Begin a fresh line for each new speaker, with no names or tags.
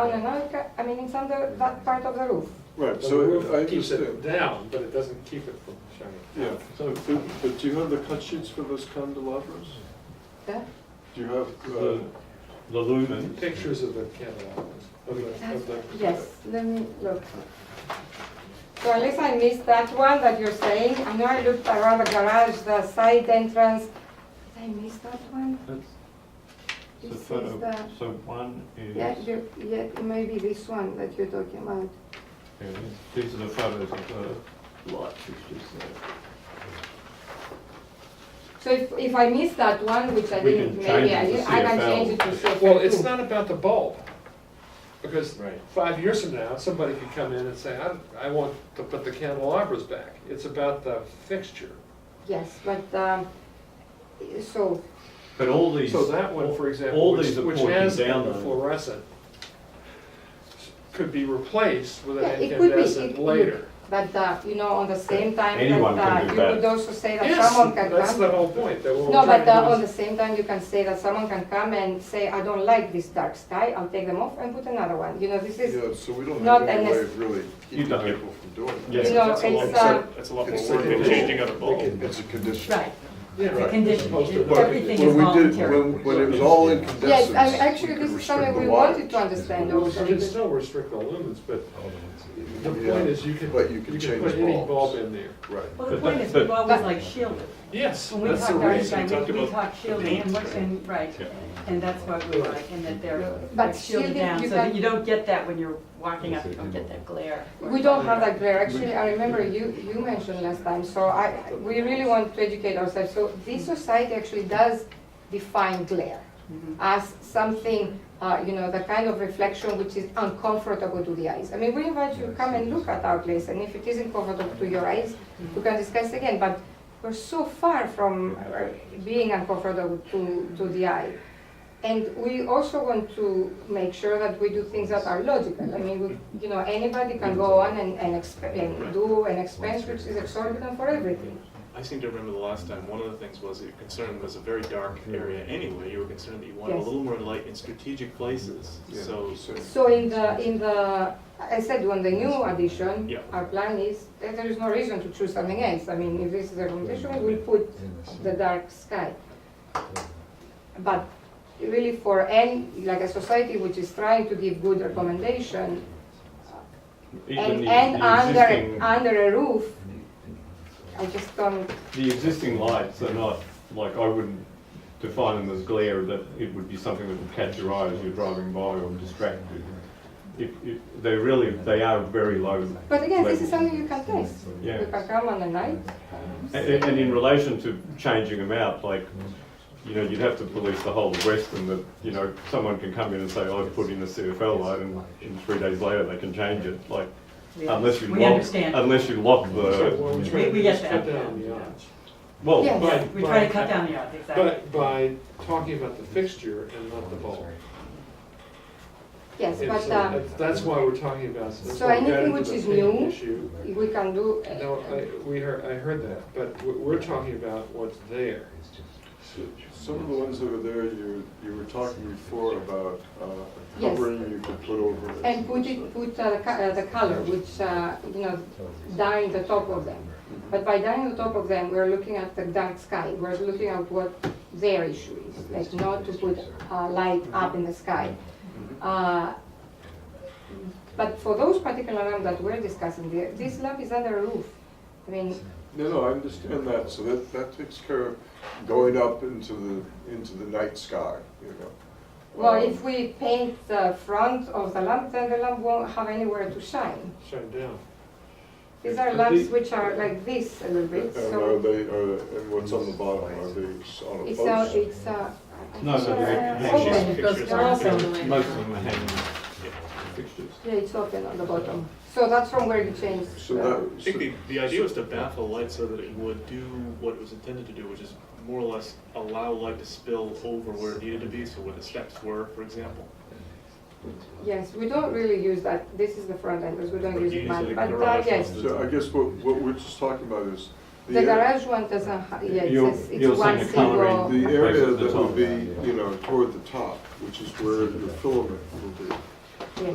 an anchor, I mean, it's under that part of the roof.
Right,
The
so
roof
I
keeps it
understand.
down, but it doesn't keep it from shining
Yeah,
out.
but, but do you have the cut sheets for those candelabras?
Yeah.
Do you have, uh,
The-
The lumens.
Pictures of the candelabras, of the, of the.
Yes, let me look. So unless I missed that one that you're saying, I know I looked around the garage, the side entrance. Did I miss that one?
That's the
This is
photo.
the-
So one is,
Yeah, you, yeah, it may be this one that you're talking about.
yeah, these are the photos of the light fixtures there.
So if, if I missed that one, which I
We
didn't,
can change
maybe I
it to
did, I can
CFL.
change it to CFL.
Well, it's
too.
not about the bulb, because
Right.
five years from now, somebody could come in and say, I, I want to put the candelabras back. It's about the fixture.
Yes, but, um, so,
But all these,
So that one, for example,
all
which
these are
which
pointing
has the
down, though.
fluorescent, could be replaced with an
Yeah, it could be, it
incandescent
could.
later.
but, uh, you know, on the same time
Anyone
that,
can
uh,
do
you
that.
could also say that
Yes,
someone can come.
that's the whole point, that what we're
No,
trying
but uh,
to
on
do
the same time, you can say that someone can come and say, I don't like this dark sky, I'll take them off and put another one. You know, this is,
yeah, so we don't
not
have any way
unless-
of really keeping
don't.
people from doing that.
Yeah.
you know,
That's a lot,
it's, uh,
that's a lot
It's
more
like
work
a
than
rule.
changing out a bulb.
It's a condition.
Right,
Yeah,
Right.
right.
Condition,
Opposed to-
everything is
When we did,
voluntary.
when, when it was all
yes,
incandescent,
I- actually,
we could
this is
restrict
something
the
we
light.
wanted to understand
Well,
also.
You can
because-
still restrict the lumens, but the point is you can,
But you
you
can
can
change
put any
bulbs.
bulb in there.
Right.
Well, the point is, we've always like shielded.
Yes,
When we
that's
talk
the
dark
reason.
side, we- we
about
talk shielding, and what's in, right,
Yeah.
and that's what we like, and that they're
But
like shielded
shielding,
down,
you
so that
can-
you don't get that when you're walking up, you don't get that glare.
We don't have that glare, actually, I remember you, you mentioned last time, so I, we really want to educate ourselves. So this society actually does define glare
Mm-hmm.
as something, uh, you know, the kind of reflection which is uncomfortable to the eyes. I mean, we invite you to come and look at our place, and if it isn't comfortable to your eyes, we can discuss again, but we're so far from uh, being uncomfortable to, to the eye. And we also want to make sure that we do things that are logical. I mean, we, you know, anybody can go on and, and, exp- and do an expense which is exorbitant for everything.
Mhm.
I seem to remember the last time, one of the things was that your concern was a very dark area anyway. You were concerned that you wanted a
Yes.
little more light in strategic places,
Yeah,
so.
So in the, in the, I said, on the new addition,
Yeah.
our plan is, that there is no reason to choose something else. I mean, if this is the recommendation, we'll put the dark sky. But really for any, like a society which is trying to give good recommendation,
even
and,
the-
and
the
under,
existing-
under a roof, I just don't,
The existing lights are not, like, I wouldn't define them as glare, that it would be something that would catch your eye as you're driving by or distract you. If, if, they really, they are very low.
but again, this is
level.
something you can test.
Yeah.
You can come on a night,
A- a- And in relation to changing them out, like, you know, you'd have to police the whole of Western that, you know, someone can come in and say, I've put in a CFL light and in three days later they can change it, like,
We-
unless you
We
lock,
understand,
unless you lock
So what we're
the,
trying to
We- we
do is
get
cut
that.
down the odds.
well,
Yeah.
By-
we try to
by-
cut down the odds, exactly.
But by talking about the fixture and not the bulb.
yes,
And
but,
so
uh,
that's- That's why we're talking about, that's
So
why we got
anything
into
which
the
is
paint
new-
issue.
we can do, uh,
No, I, we heard, I heard that, but we- we're talking about what's there.
Some of the ones that were there, you, you were talking before about uh,
Yes.
covering you could put over it.
and put it, put uh, the co- uh, the color, which, uh, you know, dye the top of them.
mm-hmm.
But by dyeing the top of them, we're looking at the dark sky, we're looking at what their issue is, like not to put uh, light up in the sky.
Mm-hmm.
Uh, But for those particular lamps that we're discussing, the- this lamp is under a roof. I mean,
No, no, I understand that, so that, that takes care of going up into the, into the night sky, you know.
well,
Um,
if we paint the front of the lamp, then the lamp won't have anywhere to shine.
Shut it down.
These are lamps which are like this a little bit,
And
so
are they, are, and what's on the bottom, are they on a
it's a,
post?
it's a.
No, no, they're-
it's,
they're
uh, open.
just
pictures.
They're open.
most of them are hanging fixtures.
Yeah, it's open on the bottom. So that's from where you change.
So
uh,
that,
I
so-
think the, the idea was to baffle light so that it would do what it was intended to do, which is more or less allow light to spill over where it needed to be, so where the steps were, for example.
Yes, we don't really use that. This is the front entrance. We don't
But
use
you
it
use
much, but
it like
uh,
garage
yes.
also.
so I guess what, what we're just talking about is.
The
air-
garage one doesn't, ha- yeah, it
You're-
says
you're
it's one
saying the
single.
coloring-
The area
Places the
that would
top.
be, you know, toward the top, which is where your filament will be.